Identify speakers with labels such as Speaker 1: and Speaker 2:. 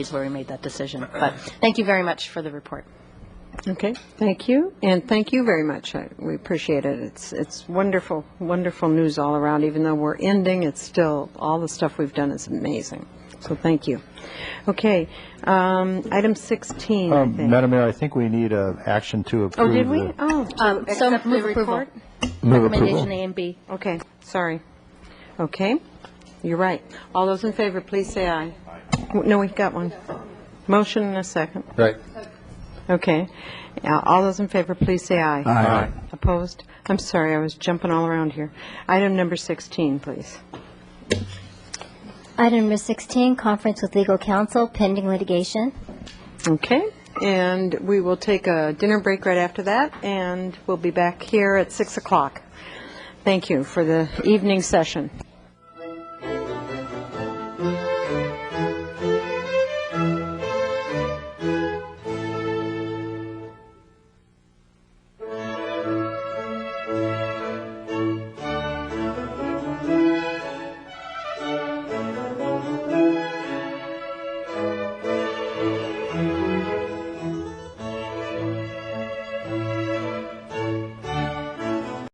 Speaker 1: is where we made that decision. But thank you very much for the report.
Speaker 2: Okay, thank you, and thank you very much. I- We appreciate it. It's, it's wonderful, wonderful news all around. Even though we're ending, it's still, all the stuff we've done is amazing. So thank you. Okay, um, item 16, I
Speaker 3: Um,
Speaker 2: think.
Speaker 3: Madam Mayor, I think we need uh action to approve.
Speaker 2: Oh, did we?
Speaker 3: the-
Speaker 2: Oh,
Speaker 1: Uh, Um, So
Speaker 2: accept the
Speaker 1: move approval.
Speaker 2: report?
Speaker 3: Move
Speaker 1: Recommendation
Speaker 3: approval.
Speaker 1: A and B.
Speaker 2: Okay, sorry. Okay, you're right. All those in favor, please say aye. W- No, we've got one. Motion and a second.
Speaker 3: Right.
Speaker 2: Okay. Uh, All those in favor, please say aye.
Speaker 3: Aye.
Speaker 2: Opposed? I'm sorry, I was jumping all around here. Item number 16, please.
Speaker 4: Item number 16, conference with legal counsel pending litigation.
Speaker 2: Okay, and we will take a dinner break right after that, and we'll be back here at 6 o'clock. Thank you for the evening session.